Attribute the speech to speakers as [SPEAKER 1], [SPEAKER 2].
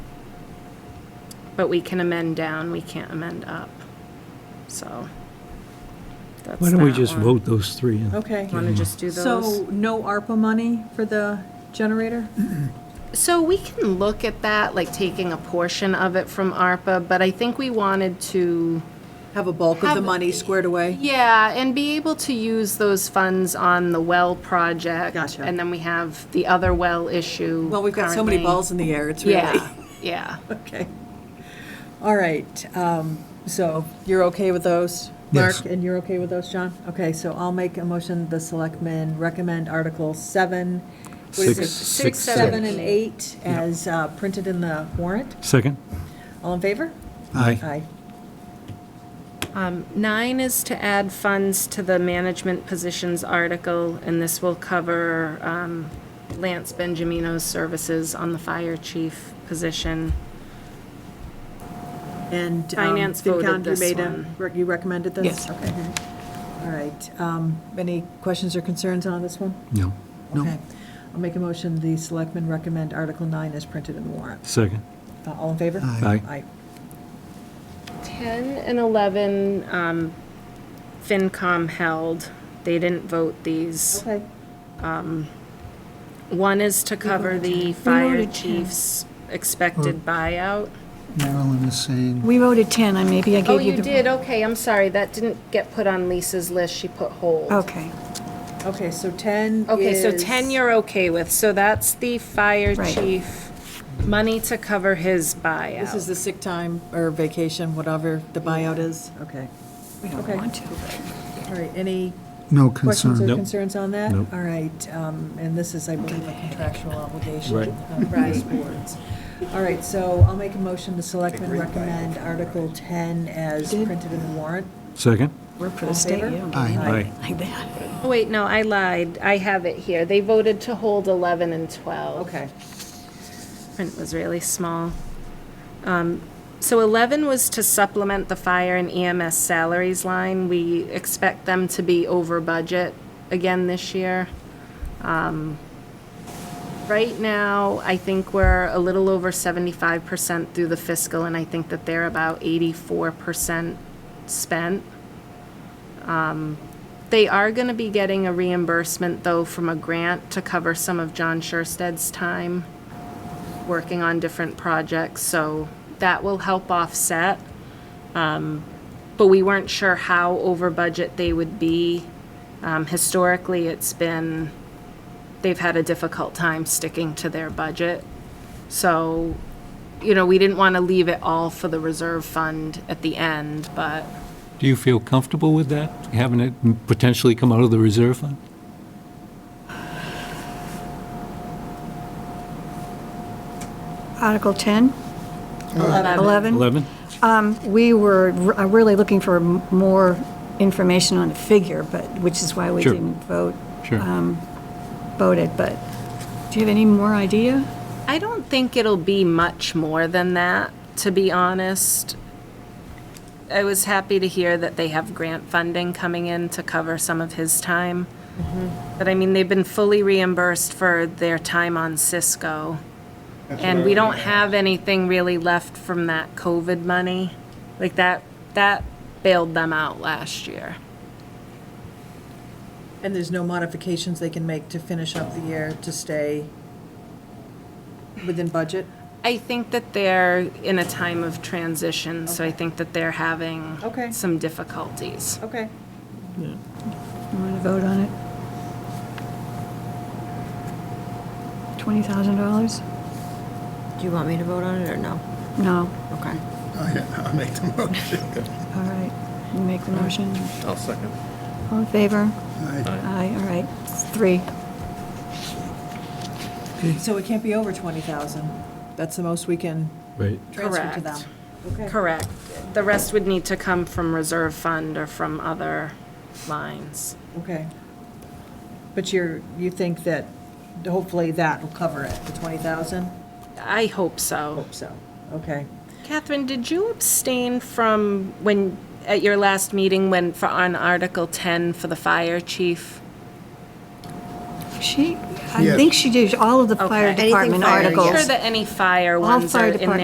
[SPEAKER 1] But we can amend down, we can't amend up. So. that's
[SPEAKER 2] Why don't we
[SPEAKER 1] that
[SPEAKER 2] just
[SPEAKER 1] one.
[SPEAKER 2] vote those three? in?
[SPEAKER 3] Okay.
[SPEAKER 1] Wanna just do those?
[SPEAKER 3] So no ARPA money for the generator?
[SPEAKER 1] So we can look at that, like taking a portion of it from ARPA, but I think we wanted to,
[SPEAKER 3] Have a bulk of the
[SPEAKER 1] Have-
[SPEAKER 3] money squared away?
[SPEAKER 1] yeah, and be able to use those funds on the well project.
[SPEAKER 3] Gotcha.
[SPEAKER 1] And then we have the other well issue.
[SPEAKER 3] Well, we've got so many
[SPEAKER 1] currently.
[SPEAKER 3] balls in the air, it's really.
[SPEAKER 1] Yeah, yeah.
[SPEAKER 3] Okay. All right, um, so you're okay with those?
[SPEAKER 2] Yes.
[SPEAKER 3] Mark, and you're okay with those, John? Okay, so I'll make a motion, the selectmen recommend Article 7, what is it?
[SPEAKER 2] Six,
[SPEAKER 1] six,
[SPEAKER 3] Seven
[SPEAKER 1] seven.
[SPEAKER 3] and 8 as uh, printed in the warrant.
[SPEAKER 2] Second?
[SPEAKER 3] All in favor?
[SPEAKER 2] Aye.
[SPEAKER 3] Aye.
[SPEAKER 1] Um, Nine is to add funds to the management positions article, and this will cover um, Lance Benjamino's services on the fire chief position.
[SPEAKER 3] And. um,
[SPEAKER 1] Finance voted
[SPEAKER 3] FinCon, you
[SPEAKER 1] this
[SPEAKER 3] made a-
[SPEAKER 1] one.
[SPEAKER 3] rec- You recommended this?
[SPEAKER 4] Yes.
[SPEAKER 3] Okay. All right, um, any questions or concerns on this one?
[SPEAKER 2] No.
[SPEAKER 3] Okay. I'll make a motion, the selectmen recommend Article 9 as printed in the warrant.
[SPEAKER 2] Second?
[SPEAKER 3] Uh, All in favor?
[SPEAKER 2] Aye.
[SPEAKER 3] Aye.
[SPEAKER 1] 10 and 11, um, FinCom held. They didn't vote these.
[SPEAKER 3] Okay.
[SPEAKER 1] One is to cover the fire chief's expected buyout.
[SPEAKER 5] Marilyn is saying,
[SPEAKER 4] We voted 10, I maybe I
[SPEAKER 1] Oh,
[SPEAKER 4] gave you
[SPEAKER 1] you
[SPEAKER 4] the...
[SPEAKER 1] did, okay, I'm sorry, that didn't get put on Lisa's list, she put hold.
[SPEAKER 4] Okay,
[SPEAKER 3] Okay, so 10
[SPEAKER 1] Okay, so
[SPEAKER 3] is-
[SPEAKER 1] 10 you're okay with, so that's the fire
[SPEAKER 4] Right.
[SPEAKER 1] chief, money to cover his buyout.
[SPEAKER 3] This is the sick time or vacation, whatever the buyout is. Okay.
[SPEAKER 4] we don't
[SPEAKER 3] Okay.
[SPEAKER 4] want to. but-
[SPEAKER 3] All right, any
[SPEAKER 5] no
[SPEAKER 3] questions or
[SPEAKER 5] concern.
[SPEAKER 2] Nope.
[SPEAKER 3] concerns on that?
[SPEAKER 2] Nope.
[SPEAKER 3] All right, um, and this is, I believe, a contractual obligation.
[SPEAKER 2] Right.
[SPEAKER 3] of these boards. All right, so I'll make a motion to selectmen recommend Article 10 as printed in the warrant.
[SPEAKER 2] Second?
[SPEAKER 4] We're for
[SPEAKER 3] All
[SPEAKER 4] the state,
[SPEAKER 3] favor?
[SPEAKER 4] you don't
[SPEAKER 5] Aye.
[SPEAKER 4] do
[SPEAKER 2] Aye.
[SPEAKER 4] anything like that.
[SPEAKER 1] Oh, wait, no, I lied, I have it here, they voted to hold 11 and 12.
[SPEAKER 3] Okay.
[SPEAKER 1] Print was really small. Um, So 11 was to supplement the fire and EMS salaries line, we expect them to be over budget again this year. Um, Right now, I think we're a little over seventy-five percent through the fiscal, and I think that they're about eighty-four percent spent. Um, They are gonna be getting a reimbursement, though, from a grant to cover some of John Shersted's time working on different projects, so that will help offset. Um, But we weren't sure how over budget they would be. Um, Historically, it's been they've had a difficult time sticking to their budget. So, you know, we didn't want to leave it all for the reserve fund at the end, but
[SPEAKER 2] Do you feel comfortable with that, having it potentially come out of the reserve fund?
[SPEAKER 4] Article 10? 11?
[SPEAKER 2] 11?
[SPEAKER 4] Um, We were r- uh, really looking for m- more information on the figure, but, which is why we
[SPEAKER 2] Sure.
[SPEAKER 4] didn't vote,
[SPEAKER 2] Sure.
[SPEAKER 4] vote it, but do you have any more idea?
[SPEAKER 1] I don't think it'll be much more than that, to be honest. I was happy to hear that they have grant funding coming in to cover some of his time. But I mean, they've been fully reimbursed for their time on Cisco. And we don't have anything really left from that COVID money. Like that, that bailed them out last year.
[SPEAKER 3] And there's no modifications they can make to finish up the year to stay within budget?
[SPEAKER 1] I think that they're in a time of transition, so I think that they're having
[SPEAKER 3] Okay.
[SPEAKER 1] some difficulties.
[SPEAKER 3] Okay.
[SPEAKER 4] You want to vote on it? $20,000?
[SPEAKER 6] Do you want me to vote on it or no?
[SPEAKER 4] No,
[SPEAKER 6] Okay.
[SPEAKER 7] I'll make the motion.
[SPEAKER 4] all right. You make the motion.
[SPEAKER 7] I'll second.
[SPEAKER 4] All in favor?
[SPEAKER 7] Aye.
[SPEAKER 4] Aye, all right. It's Three.
[SPEAKER 3] So it can't be over 20,000? That's the most we can
[SPEAKER 2] Right.
[SPEAKER 3] transfer to them?
[SPEAKER 1] Correct.
[SPEAKER 3] Okay.
[SPEAKER 1] Correct. The rest would need to come from reserve fund or from other lines.
[SPEAKER 3] Okay. But you're, you think that hopefully that will cover it, the 20,000?
[SPEAKER 1] I hope so.
[SPEAKER 3] Hope so. Okay.
[SPEAKER 1] Catherine, did you abstain from when, at your last meeting, when, for, on Article 10 for the fire chief?
[SPEAKER 4] She, I
[SPEAKER 7] Yes.
[SPEAKER 4] think she did all of the fire
[SPEAKER 1] Okay. Anything
[SPEAKER 4] department
[SPEAKER 6] fire, yes.
[SPEAKER 4] articles.
[SPEAKER 1] Sure that any fire
[SPEAKER 4] All
[SPEAKER 1] ones
[SPEAKER 4] fire
[SPEAKER 1] are in there.
[SPEAKER 4] department